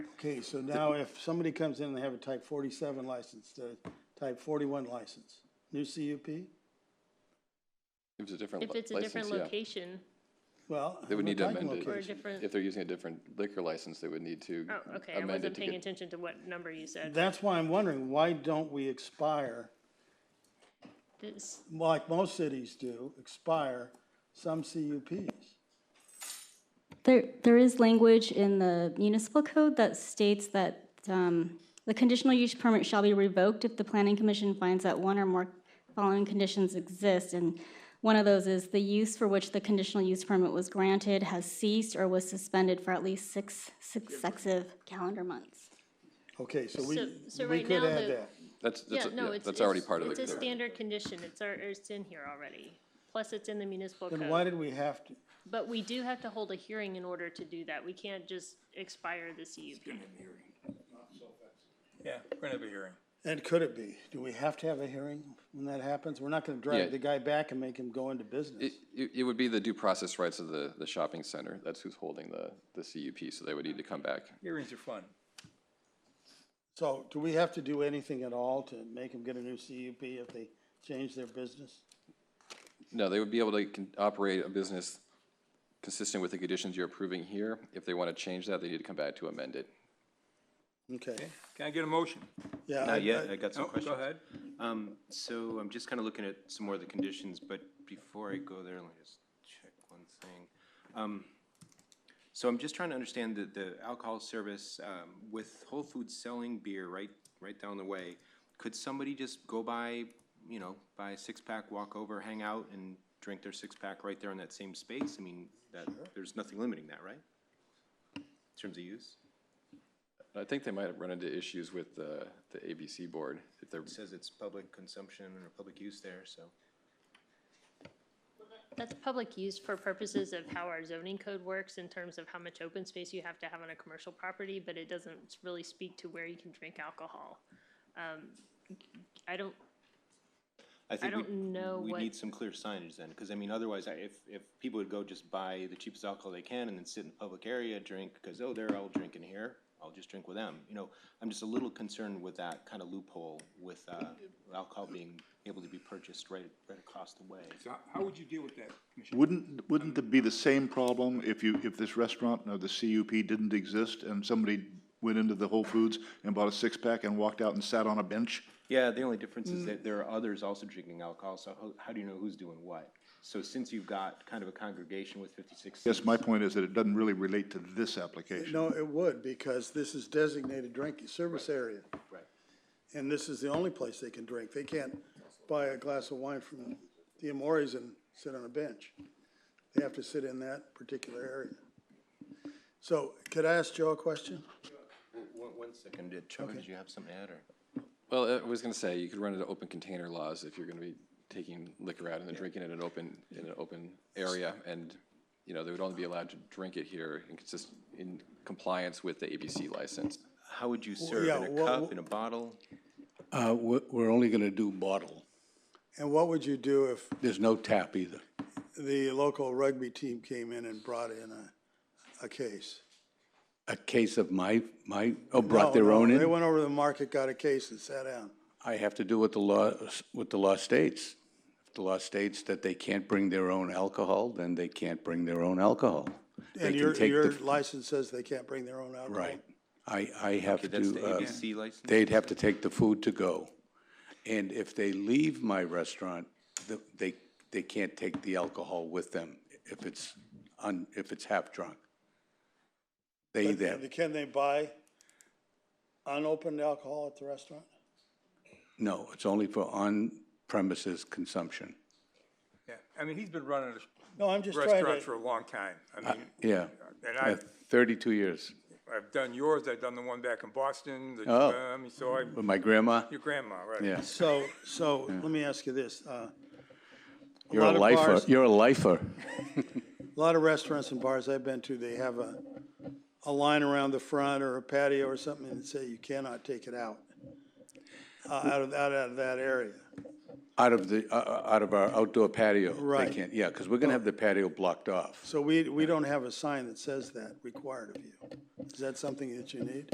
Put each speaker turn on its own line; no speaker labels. Okay, so now if somebody comes in and they have a type forty-seven license, the type forty-one license, new CUP?
If it's a different
If
li-
it's a
license,
different
yeah.
location,
Well.
They would
we're
need to
talking
amend it.
or a
location.
different,
If they're using a different liquor license, they would need to
oh, okay, I
amend it
wasn't
to
paying
get.
attention to what number you said.
That's why I'm wondering, why don't we expire,
This-
like most cities do, expire some CUPs?
There, there is language in the municipal code that states that um, the conditional use permit shall be revoked if the planning commission finds that one or more following conditions exist. And one of those is the use for which the conditional use permit was granted has ceased or was suspended for at least six successive calendar months.
Okay, so we,
So- so
we
right
could
now
add
the-
that.
That's, that's,
Yeah,
a-
no,
yeah,
it's.
that's already
it's-
part of the.
It's a
code.
standard condition, it's, ar- it's in here already, plus it's in the municipal
Then why
code.
did we have to?
But we do have to hold a hearing in order to do that, we can't just expire the CUP.
Yeah, we're gonna have a hearing.
And could it be? Do we have to have a hearing when that happens? We're not gonna
Yeah.
drag the guy back and make him go into business.
It, it- it would be the due process rights of the, the shopping center. That's who's holding the, the CUP, so they would need to come back.
Hearings are fun.
So do we have to do anything at all to make him get a new CUP if they change their business?
No, they would be able to con- operate a business consistent with the conditions you're approving here. If they want to change that, they need to come back to amend it.
Okay,
Can I get a motion?
yeah. I-
Not yet,
I-
I got
No,
some questions.
oh, Go ahead.
Um, so I'm just kind of looking at some more of the conditions, but before I go there, let me just check one thing. Um, so I'm just trying to understand the, the alcohol service, um, with Whole Foods selling beer right, right down the way, could somebody just go by, you know, buy a six-pack, walk over, hang out, and drink their six-pack right there in that same space? I mean, that, there's nothing limiting that, right? In terms of use?
I think they might have run into issues with the, the ABC board if they're,
It says it's public consumption or public use there, so.
That's public use for purposes of how our zoning code works in terms of how much open space you have to have on a commercial property, but it doesn't really speak to where you can drink alcohol. Um, I don't,
think
don't
we-
know what-
We need some clear signage then, because I mean, otherwise, I- if, if people would go just buy the cheapest alcohol they can and then sit in the public area, drink, because, oh, they're all drinking here, I'll just drink with them, you know? I'm just a little concerned with that kind of loophole with uh, alcohol being able to be purchased right, right across the way.
So how would you deal with that, Commissioner?
Wouldn't, wouldn't it be the same problem if you, if this restaurant or the CUP didn't exist and somebody went into the Whole Foods and bought a six-pack and walked out and sat on a bench?
Yeah, the only difference is that there are others also drinking alcohol, so how, how do you know who's doing what? So since you've got kind of a congregation with fifty-six
Yes, my point is that it doesn't really relate to this application.
No, it would, because this is designated drinking service area.
Right.
And this is the only place they can drink. They can't buy a glass of wine from the Amores and sit on a bench. They have to sit in that particular area. So could I ask Joe a question?
One, one second, did Trevor, did you have something to add, or?
well, I was going to say, you could run into open container laws if you're going to be taking liquor out and then drinking it in an open, in an open area. And, you know, they would only be allowed to drink it here in consist, in compliance with the ABC license.
How would you serve,
yeah,
in a
wha- wha-
cup, in a bottle?
Uh, we're, we're only gonna do bottle.
And what would you do if
There's no tap either.
the local rugby team came in and brought in a, a case?
A case of my, my, oh, brought their
No, no,
own
They
in?
went over to the market, got a case and sat down.
I have to do what the law, what the law states. If the law states that they can't bring their own alcohol, then they can't bring their own alcohol. They
And
can
your,
take the-
your license says they can't bring their own alcohol.
Right. I, I have to,
That's the
uh,
ABC license?
they'd have to take the food to go. And if they leave my restaurant, the- they, they can't take the alcohol with them if it's, un- if it's half-drunk. They either have
And Can they buy unopened alcohol at the restaurant?
No, it's only for on-premises consumption.
Yeah, I mean, he's been running
No, I'm just
a
trying
restaurant for
to,
a long time. I mean,
Uh, Yeah,
and
uh,
I've,
32 years.
I've done yours, I've done the one back in Boston, the,
Oh.
um, so I,
With my grandma,
your grandma, right?
yeah.
so, so, let me ask you this, uh,
You're a
lot of
lifer,
bars-
you're a lifer.
a lot of restaurants and bars I've been to, they have a, a line around the front or a patio or something and say you cannot take it out, uh, out of, out of that area.
Out of the, uh, uh, out of our outdoor patio.
Right.
They can't, yeah, because we're going to have the patio blocked off.
So we, we don't have a sign that says that required of you. Is that something that you need?